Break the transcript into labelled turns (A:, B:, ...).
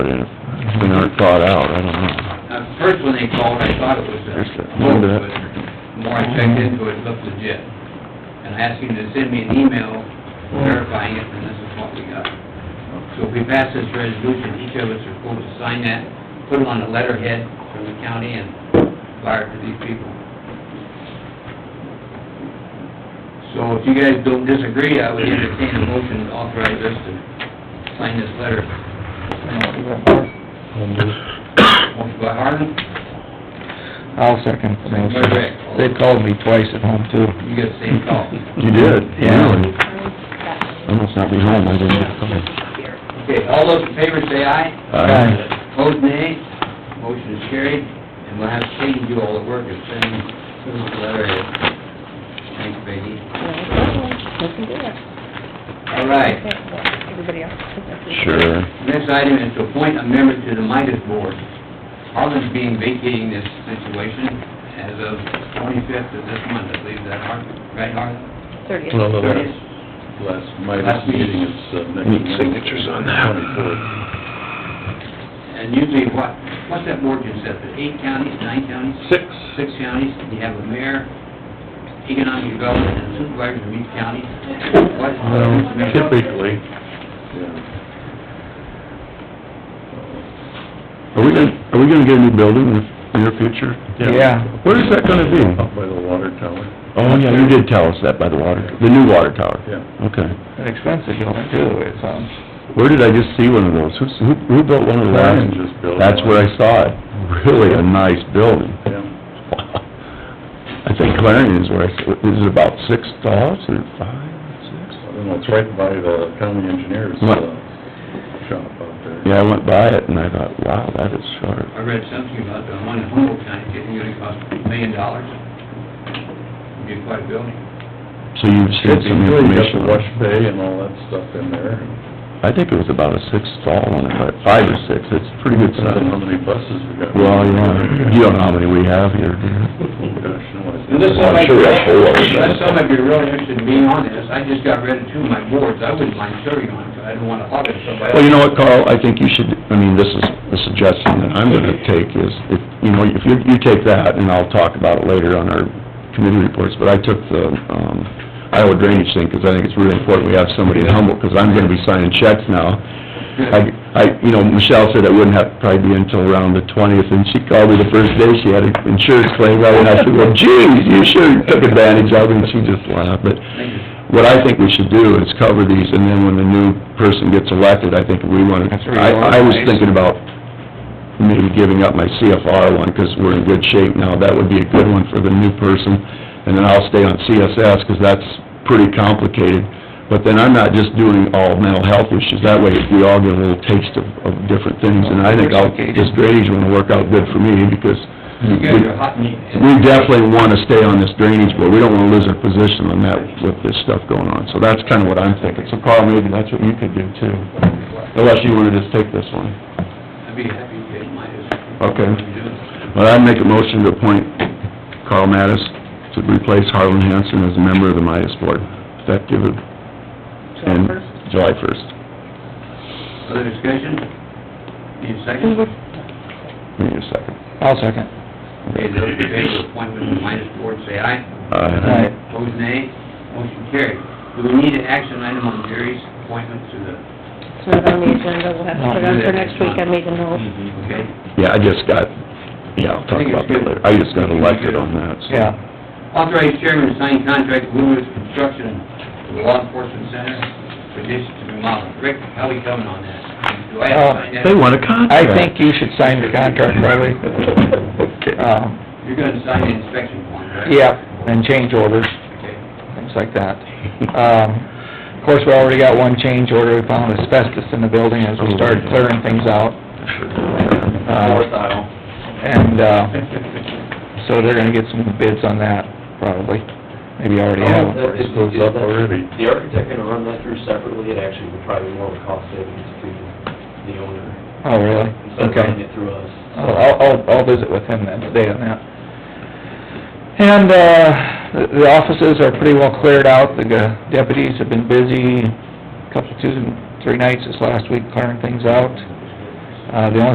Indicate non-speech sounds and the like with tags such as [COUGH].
A: but it's been aren't thought out, I don't know.
B: Now, first when they called, I thought it was
A: There's
B: a
A: that-
B: quote,
A: remember
B: but
A: that?
B: the more I checked into it, it looked legit. And I asked him to send me an email verifying it, and this is what we got. So if we pass this resolution, each of us are supposed to sign that, put it on a letterhead from the county and fire it to these people. So if you guys don't disagree, I would entertain a motion to authorize us to sign this letter. Motion by Harland,
C: I'll second the
B: Second by
C: motion.
B: Rick.
C: They called me twice at home too.
B: you got the same call.
A: You did?
C: Yeah.
A: Really? I must not be home, I didn't get home.
B: Okay, all those in favor say aye.
C: Aye.
B: Opposed, nay. Motion is carried, and we'll have Katie do all the work and send, send the letter in. Thanks, Peggy. All right,
D: Everybody else.
A: Sure.
B: next item is to appoint a member to the Midas Board. Harlan's being vacating this situation as of twenty-fifth of this month, I believe that, Har- right, Harlan?
D: Thirtieth.
E: No, no, that's,
B: Thirtieth.
E: last,
B: Last
E: my
B: meeting.
E: meeting is uh, next.
A: Need signatures on that.
E: Twenty-fourth.
B: And usually what, what's that board consist of, eight counties, nine counties?
E: Six.
B: six counties, you have a mayor, economic development, and supervisors of each county. What, what is this
E: Um,
B: mayor?
E: Typically, yeah.
A: Are we gonna, are we gonna get a new building in the near future?
C: Yeah.
A: Where is that gonna be?
E: Uh, Up by the water tower,
A: Oh, yeah, you did tell us that by the water, the new water tower.
E: yeah.
A: Okay.
C: An expensive building too, the way it sounds.
A: Where did I just see one of those? Who's, who, who built one of those?
E: Ryan just built
A: That's
E: one.
A: where I saw it. Really a nice building.
E: Yeah,
A: I think Clarendon is where I, saw- is it about six dollars or five, six?
E: I don't know, it's right by the county engineer's, uh,
A: What?
E: shop out there.
A: Yeah, I went by it and I thought, wow, that is sharp.
B: I read something about the one in Humboldt County, it's gonna cost a million dollars. Be quite a building.
A: So you've seen
E: Should be,
A: some
E: you got the
A: information. on
E: wash
A: it.
E: bay and all that stuff in there.
A: I think it was about a six stall on it, but five or six, it's pretty good
E: I don't know
A: size.
E: how many buses we got. Oh,
A: Well, you know,
E: [LAUGHS]
A: you don't know how many we have here, do you?
E: Gosh, no, I
B: And this
A: Well, I'm
B: might
A: sure we have four of them.
B: That's some of you are really interested in being on this, I just got rid of two of my boards, I wouldn't mind serving on it, but I don't wanna hog it somebody
A: Well,
B: else.
A: you know what, Carl, I think you should, I mean, this is a suggestion that I'm gonna take is, if, you know, if you, you take that, and I'll talk about it later on our committee reports, but I took the, um, Iowa drainage thing, 'cause I think it's really important we have somebody in Humboldt, 'cause I'm gonna be signing checks now. I, I, you know, Michelle said it wouldn't have, to probably be until around the twentieth, and she called me the first day, she had an insurance claim, right, and I said, well, geez, you sure took advantage of it, and she just laughed, but
B: Thank you.
A: what I think we should do is cover these, and then when the new person gets elected, I think we wanna,
C: That's
A: I, I was
C: reorganize.
A: thinking about maybe giving up my CFR one, 'cause we're in good shape now, that would be a good one for the new person, and then I'll stay on CSS, 'cause that's pretty complicated, but then I'm not just doing all mental health issues, that way we all get a little taste of, of different things, and I think I'll, this drainage one will work out good for me, because
B: You guys are hot meat.
A: we definitely wanna stay on this drainage board, we don't wanna lose our position on that with this stuff going on, so that's kinda what I'm thinking. So Carl, maybe that's what you could do too, unless you wanna just take this one.
B: I'd be happy to get mine.
A: Okay.
B: What you doing?
A: But I'd make a motion to appoint Carl Mattis to replace Harlan Hansen as a member of the Midas Board, effective in July first.
B: Other discussion? Need a second?
A: Give me a second.
C: I'll second.
B: Okay, those in favor of appointment to the minus board, say aye.
A: Uh, Aye.
B: Opposed, nay. Motion carried. Do we need an action item on Jerry's appointment to the,
D: It's not on the agenda, we'll have to put it on for next week, I made a note.
B: okay?
A: Yeah, I just got, yeah, I'll talk about that later. I just got elected on that, so.
C: Yeah.
B: Authorized chairman to sign contract with Lewis Construction for the law enforcement center for this to remodel. Rick, how are we coming on that? Do I have
E: Uh,
B: to sign that?
A: They want a contract.
C: I think you should sign the contract,
A: [LAUGHS]
C: Riley.
A: Okay.
C: Um,
B: You're gonna sign the inspection form, right?
C: yeah, and change orders,
B: Okay.
C: things like that. Um, of course, we already got one change order, we found asbestos in the building as we started clearing things out.
B: Fourth
C: Uh,
B: aisle.
C: and, uh,
B: [LAUGHS]
E: [LAUGHS]
C: so they're gonna get some bids on that, probably. Maybe already
B: Oh,
C: have one.
E: Price goes up already.
F: Oh, The architect gonna run that through separately, it actually would probably be more of a cost savings to the owner,
C: Oh, really?
F: instead of running
C: Okay.
F: it through us.
C: I'll, I'll- I'll, I'll visit with him then today on that. And, uh, the- the offices are pretty well cleared out, the uh, deputies have been busy, couple, two, three nights this last week clearing things out. Uh, the only